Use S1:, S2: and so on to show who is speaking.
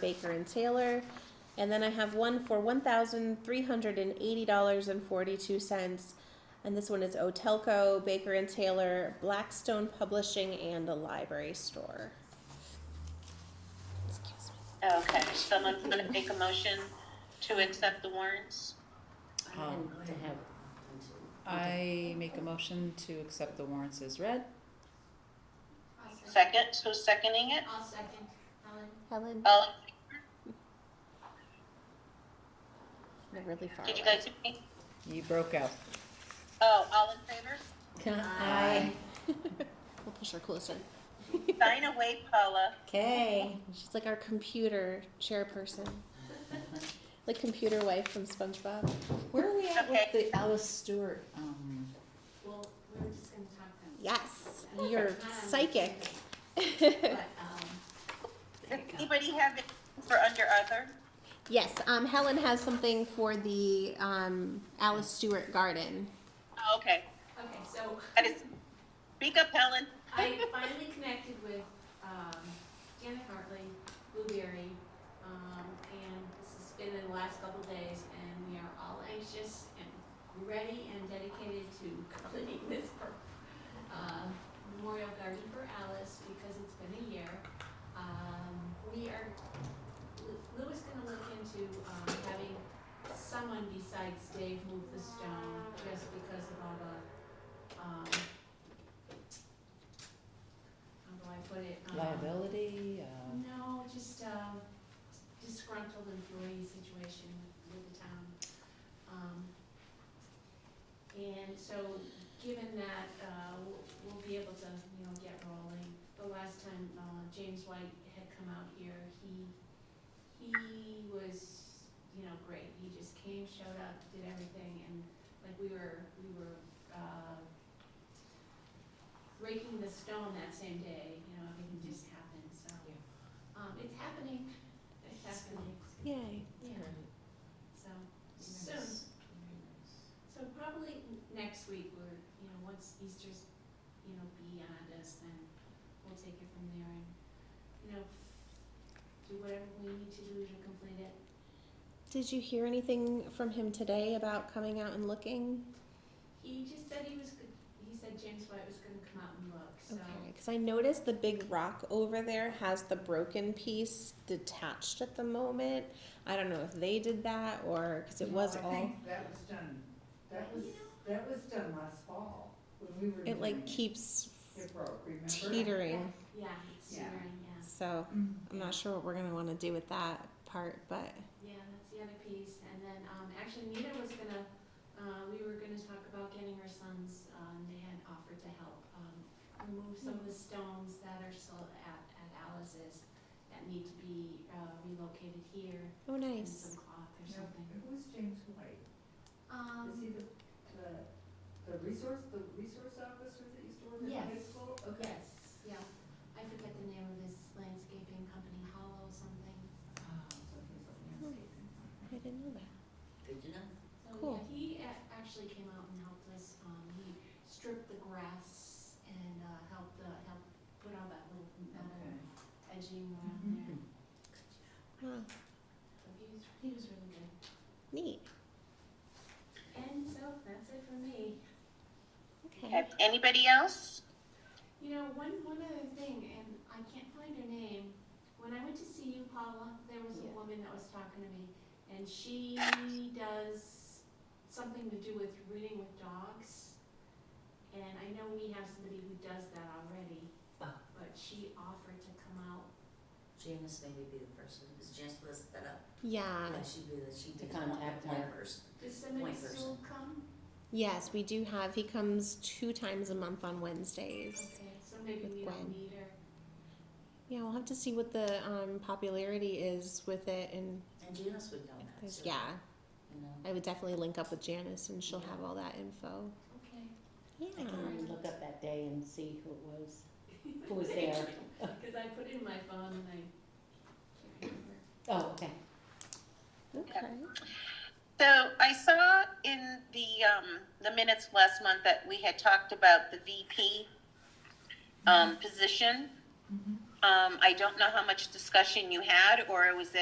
S1: Baker and Taylor. And then I have one for one thousand three hundred and eighty dollars and forty-two cents. And this one is Otelco, Baker and Taylor, Blackstone Publishing, and a library store. Excuse me.
S2: Okay, someone's gonna make a motion to accept the warrants?
S3: Um,
S4: to have.
S3: I make a motion to accept the warrants as read.
S2: Second, who's seconding it?
S4: I'll second, Helen.
S1: Helen,
S2: All,
S1: you're really far
S2: did you
S1: away.
S2: guys, agree?
S3: You broke out.
S2: oh, all in favor?
S3: Aye.
S1: We'll push her closer.
S2: Sign away, Paula.
S4: Okay.
S1: She's like our computer chairperson. Like computer wife from SpongeBob.
S3: Where are we at
S2: Okay.
S3: with the Alice Stewart? Um,
S4: Well, we were just gonna talk about. um,
S1: Yes, you're psychic.
S4: But, um,
S3: there you go.
S2: Anybody have it for under other?
S1: Yes, um, Helen has something for the um, Alice Stewart Garden.
S2: Oh, Okay,
S4: okay, so
S2: that is, speak up, Helen.
S4: I finally connected with, um, Janet Hartley, Blueberry, um, and this has been in the last couple days, and we are all anxious and ready and dedicated to completing this, per- uh, Memorial Garden for Alice, because it's been a year. Um, we are, Lu- Lou is gonna look into, um, having someone besides Dave move the stone, just because of all the, um, how do I put it? Um,
S5: Uh-huh.
S3: Liability, uh,
S4: no, just um, disgruntled employee situation with- with the town. Um, And so, given that, uh, we'll- we'll be able to, you know, get rolling. The last time uh, James White had come out here, he, he was, you know, great. He just came, showed up, did everything, and like we were, we were uh, raking the stone that same day, you know, everything just happened, so. Um, it's happening, it's happening,
S1: Yay.
S4: yeah, so, soon. So probably n- next week, we're, you know, once Easter's, you know, beyond us, then we'll take it from there and, you know, do whatever we need to do to complete it.
S1: Did you hear anything from him today about coming out and looking?
S4: He just said he was, g- he said James White was gonna come out and look, so.
S1: Okay, because I noticed the big rock over there has the broken piece detached at the moment. I don't know if they did that or because it
S5: No,
S1: was
S5: I
S1: all.
S5: think that was done, that
S4: You
S5: was, that was done last fall, when we were doing
S1: It
S5: it.
S1: like keeps
S5: It broke, remember?
S1: teetering,
S4: Yeah, it's
S5: Yeah.
S4: stirring, yeah.
S1: so I'm not sure what we're gonna want to do with that part, but
S4: Yeah, that's the other piece, and then, um, actually Nita was gonna, uh, we were gonna talk about getting her sons, um, they had offered to help, um, remove some of the stones that are still at, at Alice's that need to be, uh, relocated here,
S1: oh
S4: and
S1: nice.
S4: some cloth or
S5: No,
S4: something.
S5: Who was James White? Is he
S4: Um,
S5: the, the, the resource, the resource officer that used to work at the high
S4: Yes.
S5: school? Okay.
S4: yes, yeah, I forget the name of this landscaping company, Hollow something,
S5: Ah, something, something else.
S1: I didn't know that.
S3: Good to know.
S4: So
S1: Cool.
S4: yeah, he a- actually came out and helped us. Um, he stripped the grass and uh, helped uh, help put all that little metal
S5: Okay.
S4: edging around
S5: Mm-hmm.
S4: there.
S3: Mhm.
S1: Wow,
S4: So he was he was really good.
S1: neat.
S4: And so that's it for me.
S1: Okay.
S2: Okay, Anybody else?
S4: You know, one one other thing, and I can't find her name. When I went to see you, Paula, there was a
S1: Yeah.
S4: woman that was talking to me, and she does something to do with reading with dogs. And I know we have somebody who does that already,
S6: Oh.
S4: but she offered to come out.
S6: Janice maybe be the person, because Janice was set up,
S1: Yeah.
S6: and she'd be the, she'd
S3: To
S6: be the one
S3: contact
S6: point
S3: her.
S6: person.
S4: Does somebody
S6: One
S4: still come?
S1: Yes, we do have. He comes two times a month on Wednesdays.
S4: Okay, so maybe
S1: With
S4: we don't
S1: Gwen.
S4: need her.
S1: Yeah, we'll have to see what the um, popularity is with it, and
S6: And Janice would know
S1: if
S6: that,
S1: there's,
S6: so,
S1: yeah,
S6: you know.
S1: I would definitely link up with Janice, and she'll have all that info.
S4: Okay.
S1: Yeah.
S7: I can really look up that day and see who it was, who was there.
S4: Because I put it in my phone and I can't remember.
S7: Oh, okay.
S1: Okay.
S2: So I saw in the, um, the minutes last month that we had talked about the VP, um, position.
S5: Mhm.
S2: Um, I don't know how much discussion you had, or was it